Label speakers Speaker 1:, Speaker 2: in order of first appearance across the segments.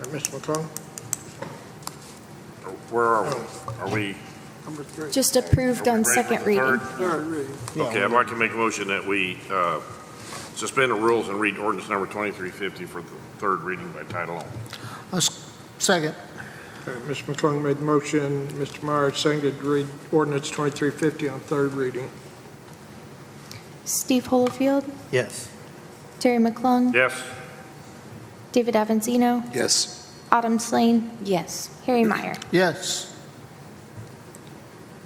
Speaker 1: Uh, Mr. McClung,
Speaker 2: Where are we? Are we?
Speaker 1: number three.
Speaker 3: Just approved
Speaker 2: are
Speaker 3: on
Speaker 2: we ready for
Speaker 3: second
Speaker 2: the
Speaker 3: reading.
Speaker 2: third?
Speaker 1: Third reading.
Speaker 2: Okay, I'd like to make a motion that we uh, suspend the rules and read ordinance number 2350 for the third reading by title only.
Speaker 4: Second.
Speaker 1: Uh, Mr. McClung made the motion, Mr. Myers seconded to read ordinance 2350 on third reading.
Speaker 3: Steve Holofield,
Speaker 4: Yes.
Speaker 3: Terry McClung,
Speaker 2: Yes?
Speaker 3: David Avanzino,
Speaker 5: Yes.
Speaker 3: Autumn Slane, yes. Harry Meyer.
Speaker 4: Yes.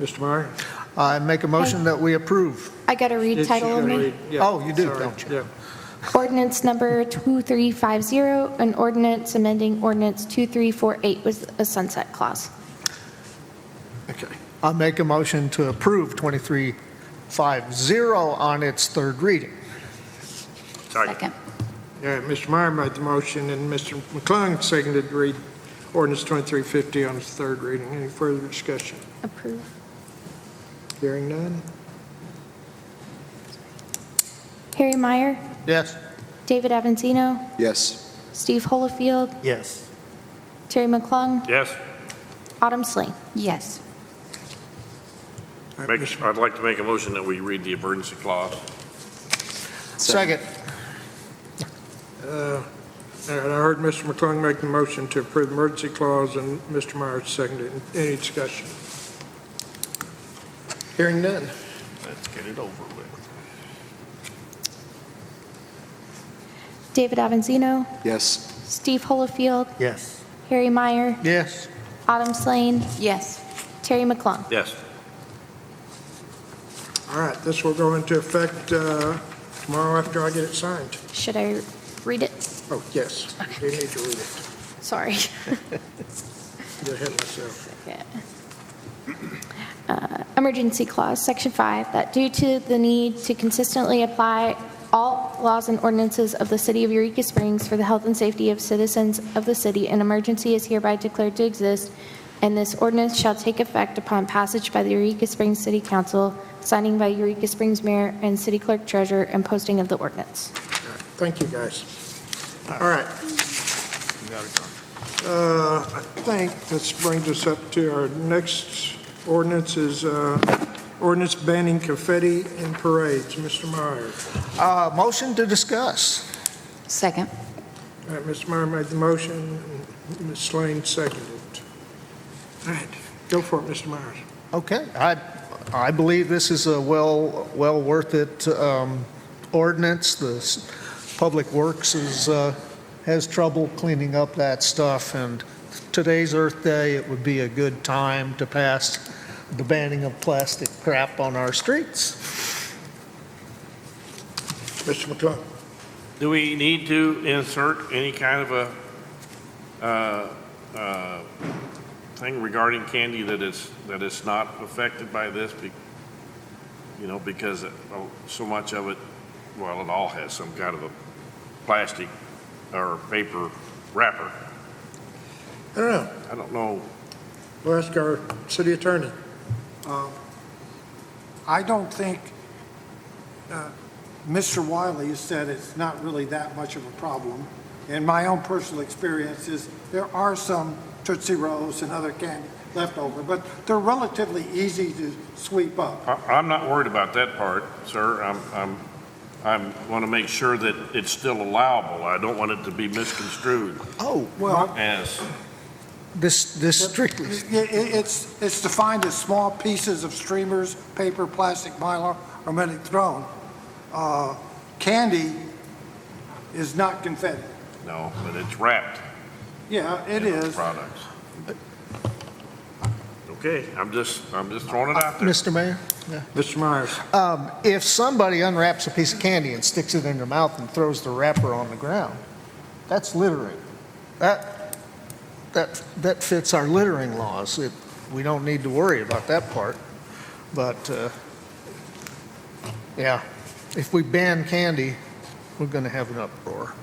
Speaker 1: Mr. Meyer?
Speaker 4: I make a motion that we approve.
Speaker 3: I got to read
Speaker 1: She's
Speaker 3: title
Speaker 1: gonna
Speaker 3: only.
Speaker 1: uh, read- yeah,
Speaker 4: Oh, you do,
Speaker 1: sorry,
Speaker 4: don't you?
Speaker 1: yeah.
Speaker 3: Ordinance number 2350, an ordinance amending ordinance 2348 with a sunset clause.
Speaker 1: Okay.
Speaker 4: I make a motion to approve 2350 on its third reading.
Speaker 3: Second.
Speaker 1: Yeah, Mr. Meyer made the motion, and Mr. McClung seconded to read ordinance 2350 on its third reading. Any further discussion?
Speaker 3: Approve.
Speaker 1: Hearing none?
Speaker 3: Harry Meyer,
Speaker 4: Yes.
Speaker 3: David Avanzino,
Speaker 5: Yes.
Speaker 3: Steve Holofield,
Speaker 4: Yes.
Speaker 3: Terry McClung,
Speaker 2: Yes?
Speaker 3: Autumn Slane.
Speaker 6: Yes.
Speaker 1: Uh,
Speaker 2: Make-
Speaker 1: Mr.
Speaker 2: I'd like to make a motion that we read the emergency clause.
Speaker 4: Second.
Speaker 1: Uh, And I heard Mr. McClung make the motion to approve the emergency clause, and Mr. Myers seconded. Any discussion? Hearing none.
Speaker 2: Let's get it over with.
Speaker 3: David Avanzino,
Speaker 5: Yes.
Speaker 3: Steve Holofield,
Speaker 4: Yes.
Speaker 3: Harry Meyer,
Speaker 4: Yes.
Speaker 3: Autumn Slane,
Speaker 6: Yes.
Speaker 3: Terry McClung.
Speaker 2: Yes.
Speaker 1: All right, this will go into effect uh, tomorrow after I get it signed.
Speaker 3: Should I read it?
Speaker 1: Oh, yes, we need to read it.
Speaker 3: Sorry.
Speaker 1: Get ahead of myself.
Speaker 3: Yeah. Uh, Emergency clause, section five, that due to the need to consistently apply all laws and ordinances of the city of Eureka Springs for the health and safety of citizens of the city, an emergency is hereby declared to exist, and this ordinance shall take effect upon passage by the Eureka Springs City Council, signing by Eureka Springs Mayor and City Clerk Treasurer, and posting of the ordinance.
Speaker 1: All right, Thank you, guys. All right. Uh, I think this brings us up to our next ordinance is uh, ordinance banning confetti and parades. Mr. Meyer.
Speaker 4: Uh, Motion to discuss.
Speaker 6: Second.
Speaker 1: All right, Mr. Meyer made the motion, and Ms. Slane seconded. All right, go for it, Mr. Myers.
Speaker 4: Okay, I, I believe this is a well, well worth it um, ordinance. The s- Public Works is, uh, has trouble cleaning up that stuff, and today's Earth Day, it would be a good time to pass the banning of plastic crap on our streets.
Speaker 1: Mr. McClung.
Speaker 2: Do we need to insert any kind of a, uh, uh, thing regarding candy that is, that is not affected by this? Be- You know, because uh, so much of it, well, it all has some kind of a plastic or paper wrapper.
Speaker 1: I don't know.
Speaker 2: I don't know.
Speaker 1: We'll ask our city attorney.
Speaker 7: Uh, I don't think, uh, Mr. Wiley said it's not really that much of a problem. And my own personal experience is there are some Tootsie Rolls and other candy left over, but they're relatively easy to sweep up.
Speaker 2: I, I'm not worried about that part, sir. I'm, I'm, I'm, want to make sure that it's still allowable. I don't want it to be misconstrued
Speaker 4: Oh,
Speaker 7: Well,
Speaker 2: as,
Speaker 4: this, this
Speaker 7: i-
Speaker 4: strictly,
Speaker 7: i- it's, it's defined as small pieces of streamers, paper, plastic, mylar, or metal thrown. Uh, Candy is not confetti.
Speaker 2: no, but it's wrapped.
Speaker 7: Yeah, it
Speaker 2: in those
Speaker 7: is.
Speaker 2: Products. Okay, I'm just, I'm just throwing it out there.
Speaker 4: Mr. Mayor?
Speaker 1: Mr. Myers.
Speaker 4: Um, If somebody unwraps a piece of candy and sticks it in their mouth and throws the wrapper on the ground, that's littering. That, that, that fits our littering laws. It- We don't need to worry about that part. But, uh, yeah, if we ban candy, we're going to have an uproar.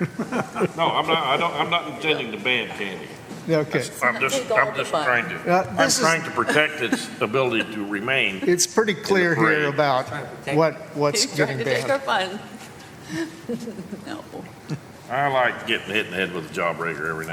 Speaker 2: No, I'm not, I don't, I'm not intending to ban candy.
Speaker 4: Okay.
Speaker 2: I'm just, I'm just trying
Speaker 4: Uh,
Speaker 2: to, I'm
Speaker 4: this is-
Speaker 2: trying to protect its ability to remain.
Speaker 4: It's pretty clear here
Speaker 2: parade.
Speaker 4: about what, what's
Speaker 6: He's
Speaker 4: getting
Speaker 6: trying to take our
Speaker 4: banned.
Speaker 6: fun. No.
Speaker 2: I like getting hit in the head with a jawbreaker every now